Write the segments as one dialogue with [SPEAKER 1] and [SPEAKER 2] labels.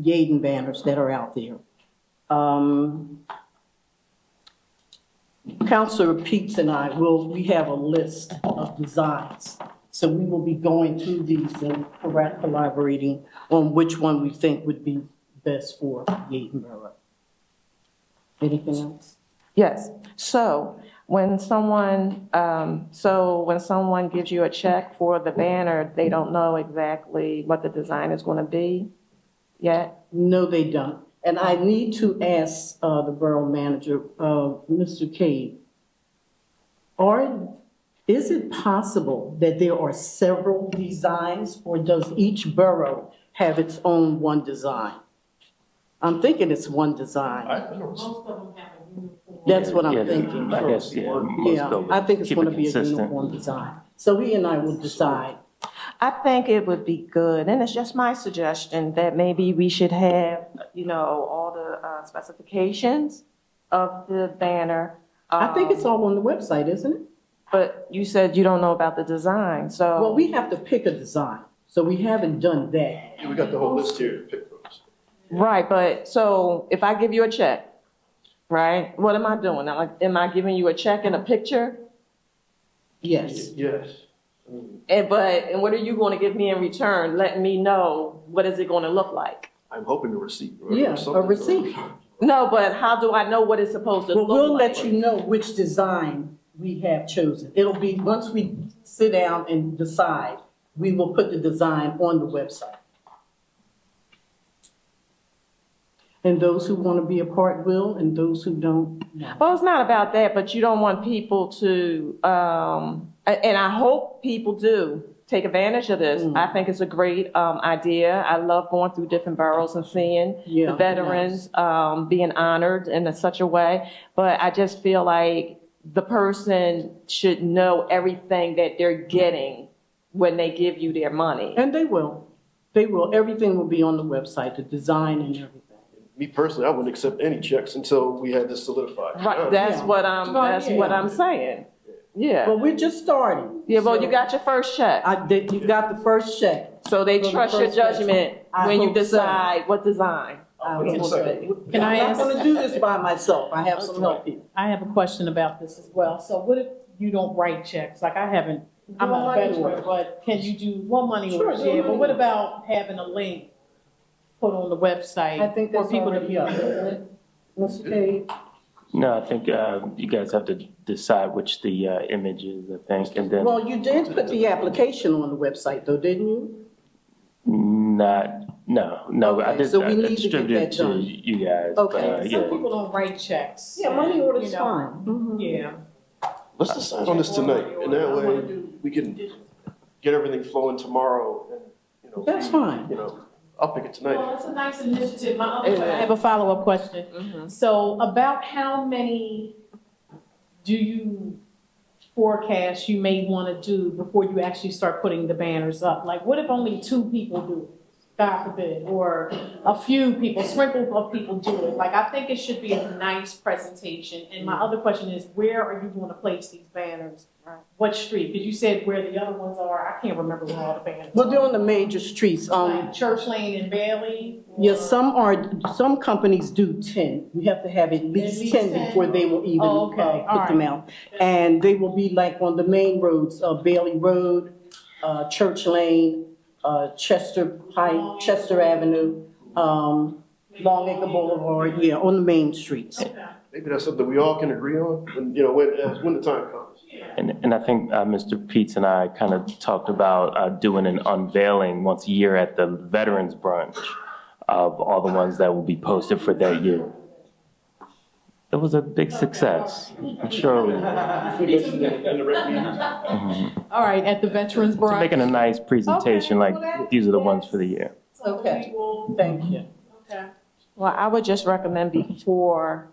[SPEAKER 1] Yaden banners that are out there. Um, Counselor Peets and I will, we have a list of designs. So we will be going through these and correct- collaborating on which one we think would be best for Yaden Borough. Anything else?
[SPEAKER 2] Yes, so when someone, um, so when someone gives you a check for the banner, they don't know exactly what the design is gonna be yet?
[SPEAKER 1] No, they don't. And I need to ask uh, the borough manager, uh, Mr. Cade, are, is it possible that there are several designs, or does each borough have its own one design? I'm thinking it's one design.
[SPEAKER 3] Most of them have a uniform.
[SPEAKER 1] That's what I'm
[SPEAKER 4] Yes,
[SPEAKER 1] thinking.
[SPEAKER 4] I guess, yeah. most
[SPEAKER 1] Yeah,
[SPEAKER 4] of it.
[SPEAKER 1] I think it's
[SPEAKER 4] Keep
[SPEAKER 1] going
[SPEAKER 4] it
[SPEAKER 1] to be a
[SPEAKER 4] consistent.
[SPEAKER 1] uniform design. So he and I will decide.
[SPEAKER 2] I think it would be good, and it's just my suggestion, that maybe we should have, you know, all the uh, specifications of the banner.
[SPEAKER 1] I think
[SPEAKER 2] um,
[SPEAKER 1] it's all on the website, isn't it?
[SPEAKER 2] But you said you don't know about the design, so.
[SPEAKER 1] Well, we have to pick a design, so we haven't done that.
[SPEAKER 5] Yeah, we got the whole list here to pick from.
[SPEAKER 2] Right, but so if I give you a check, right, what am I doing? Am I, am I giving you a check and a picture?
[SPEAKER 1] Yes.
[SPEAKER 5] Yes. I mean,
[SPEAKER 2] And but and what are you going to give me in return? Letting me know what is it going to look like?
[SPEAKER 5] I'm hoping to receive. or
[SPEAKER 1] Yeah, a
[SPEAKER 5] something.
[SPEAKER 1] receipt.
[SPEAKER 2] No, but how do I know what it's supposed to
[SPEAKER 1] Well,
[SPEAKER 2] look
[SPEAKER 1] we'll
[SPEAKER 2] like?
[SPEAKER 1] let you know which design we have chosen. It'll be, once we sit down and decide, we will put the design on the website. And those who want to be a part will, and those who don't, no.
[SPEAKER 2] Well, it's not about that, but you don't want people to, um, a- and I hope people do take advantage of this.
[SPEAKER 1] Mm.
[SPEAKER 2] I think it's a great, um, idea. I love going through different boroughs and seeing
[SPEAKER 1] Yeah,
[SPEAKER 2] the veterans, um, being honored in a- such a way. But I just feel like the person should know everything that they're getting when they give you their money.
[SPEAKER 1] And they will. They will. Everything will be on the website, the design and everything.
[SPEAKER 5] Me personally, I wouldn't accept any checks until we had this solidified.
[SPEAKER 2] Right, that's
[SPEAKER 1] Yeah.
[SPEAKER 2] what I'm,
[SPEAKER 1] Right,
[SPEAKER 2] that's
[SPEAKER 1] yeah.
[SPEAKER 2] what I'm saying.
[SPEAKER 1] But
[SPEAKER 2] Yeah.
[SPEAKER 1] we're just starting.
[SPEAKER 2] Yeah, well,
[SPEAKER 1] so-
[SPEAKER 2] you got your first check.
[SPEAKER 1] I did, you got the first check.
[SPEAKER 2] So they
[SPEAKER 1] So the
[SPEAKER 2] trust your
[SPEAKER 1] first person.
[SPEAKER 2] judgment
[SPEAKER 1] I
[SPEAKER 2] when you
[SPEAKER 1] hope so.
[SPEAKER 2] decide what design.
[SPEAKER 1] I
[SPEAKER 5] Wait a
[SPEAKER 1] will
[SPEAKER 5] second.
[SPEAKER 1] say.
[SPEAKER 3] Can I
[SPEAKER 1] I'm not
[SPEAKER 3] ask-
[SPEAKER 1] going to do this by myself. I have some help here.
[SPEAKER 3] I have a question about this as well. So what if you don't write checks? Like I haven't, I'm
[SPEAKER 1] Well,
[SPEAKER 3] not a
[SPEAKER 1] money
[SPEAKER 3] veteran,
[SPEAKER 1] order.
[SPEAKER 3] but can you do, well, money
[SPEAKER 1] Sure,
[SPEAKER 3] orders,
[SPEAKER 1] do
[SPEAKER 3] yeah,
[SPEAKER 1] money
[SPEAKER 3] but what
[SPEAKER 1] order.
[SPEAKER 3] about having a link put on the website?
[SPEAKER 1] I think that's
[SPEAKER 3] For people to
[SPEAKER 1] already
[SPEAKER 3] be
[SPEAKER 1] up, isn't
[SPEAKER 3] aware?
[SPEAKER 1] it? Mr. Cade?
[SPEAKER 4] No, I think uh, you guys have to decide which the uh, image is, I think, and then
[SPEAKER 1] Well, you did put the application on the website though, didn't you?
[SPEAKER 4] not, no, no, I
[SPEAKER 1] Okay,
[SPEAKER 4] just
[SPEAKER 1] so we
[SPEAKER 4] I- I
[SPEAKER 1] need to get
[SPEAKER 4] distributed
[SPEAKER 1] that
[SPEAKER 4] it to
[SPEAKER 1] done.
[SPEAKER 4] you guys. but,
[SPEAKER 1] Okay,
[SPEAKER 4] uh,
[SPEAKER 3] Some
[SPEAKER 4] yeah.
[SPEAKER 3] people don't write checks.
[SPEAKER 1] Yeah, money
[SPEAKER 3] and,
[SPEAKER 1] order's
[SPEAKER 3] you know,
[SPEAKER 1] fine. Mhm.
[SPEAKER 3] Yeah.
[SPEAKER 5] Let's decide on this tonight, and that way we can get everything flowing tomorrow and, you know.
[SPEAKER 1] That's
[SPEAKER 5] we-
[SPEAKER 1] fine.
[SPEAKER 5] You know, I'll pick it tonight.
[SPEAKER 3] Well, it's a nice initiative. My other, I have a follow-up question. So about how many do you forecast you may want to do before you actually start putting the banners up? Like, what if only two people do it, God forbid, or a few people, sprinkle of people do it? Like, I think it should be a nice presentation. And my other question is, where are you going to place these banners? What street? Because you said where the other ones are. I can't remember where all the banners
[SPEAKER 1] Well, they're
[SPEAKER 3] are.
[SPEAKER 1] on the major streets. Um,
[SPEAKER 3] Like Church Lane and Bailey?
[SPEAKER 1] yeah,
[SPEAKER 3] or-
[SPEAKER 1] some are, some companies do ten. We have to have at least
[SPEAKER 3] least
[SPEAKER 1] ten
[SPEAKER 3] 10?
[SPEAKER 1] before they will even
[SPEAKER 3] Oh, okay.
[SPEAKER 1] uh,
[SPEAKER 3] All
[SPEAKER 1] put them out. And they will be like on the main roads, uh, Bailey Road, uh, Church Lane, uh, Chester Pike, Chester Avenue, um, Long Acre Boulevard, yeah, on the main streets.
[SPEAKER 5] Maybe that's something we all can agree on, and, you know, when, uh, when the time comes.
[SPEAKER 4] And, and I think uh, Mr. Peets and I kind of talked about uh, doing an unveiling once a year at the Veterans Brunch of all the ones that will be posted for that year. It was a big success. I'm sure
[SPEAKER 5] And the rec meetings.
[SPEAKER 3] All right, at the Veterans
[SPEAKER 4] we're
[SPEAKER 3] Brunch.
[SPEAKER 4] making a nice presentation,
[SPEAKER 3] Okay,
[SPEAKER 4] like,
[SPEAKER 3] well, that-
[SPEAKER 4] these are the ones for the year.
[SPEAKER 3] So
[SPEAKER 1] Okay.
[SPEAKER 3] we will-
[SPEAKER 1] Thank you.
[SPEAKER 3] Okay.
[SPEAKER 2] Well, I would just recommend before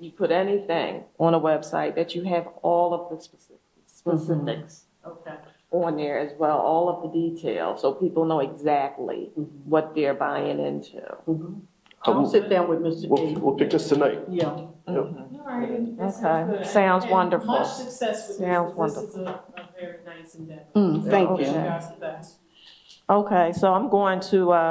[SPEAKER 2] you put anything on a website that you have all of the specific- specifics
[SPEAKER 3] Okay.
[SPEAKER 2] on there as well, all of the details, so people know exactly what they're buying into.
[SPEAKER 4] Uh,
[SPEAKER 1] I'll sit down with Mr.
[SPEAKER 5] We'll,
[SPEAKER 1] Cade.
[SPEAKER 5] we'll pick this tonight.
[SPEAKER 1] Yeah.
[SPEAKER 3] All right. that
[SPEAKER 2] Okay.
[SPEAKER 3] good.
[SPEAKER 2] Sounds
[SPEAKER 3] And
[SPEAKER 2] wonderful.
[SPEAKER 3] Much success with this.
[SPEAKER 2] Sounds
[SPEAKER 3] This is a a very nice endeavor.
[SPEAKER 1] Mm, thank
[SPEAKER 3] Wish
[SPEAKER 1] you.
[SPEAKER 3] you guys the best.
[SPEAKER 2] Okay, so I'm going to, uh,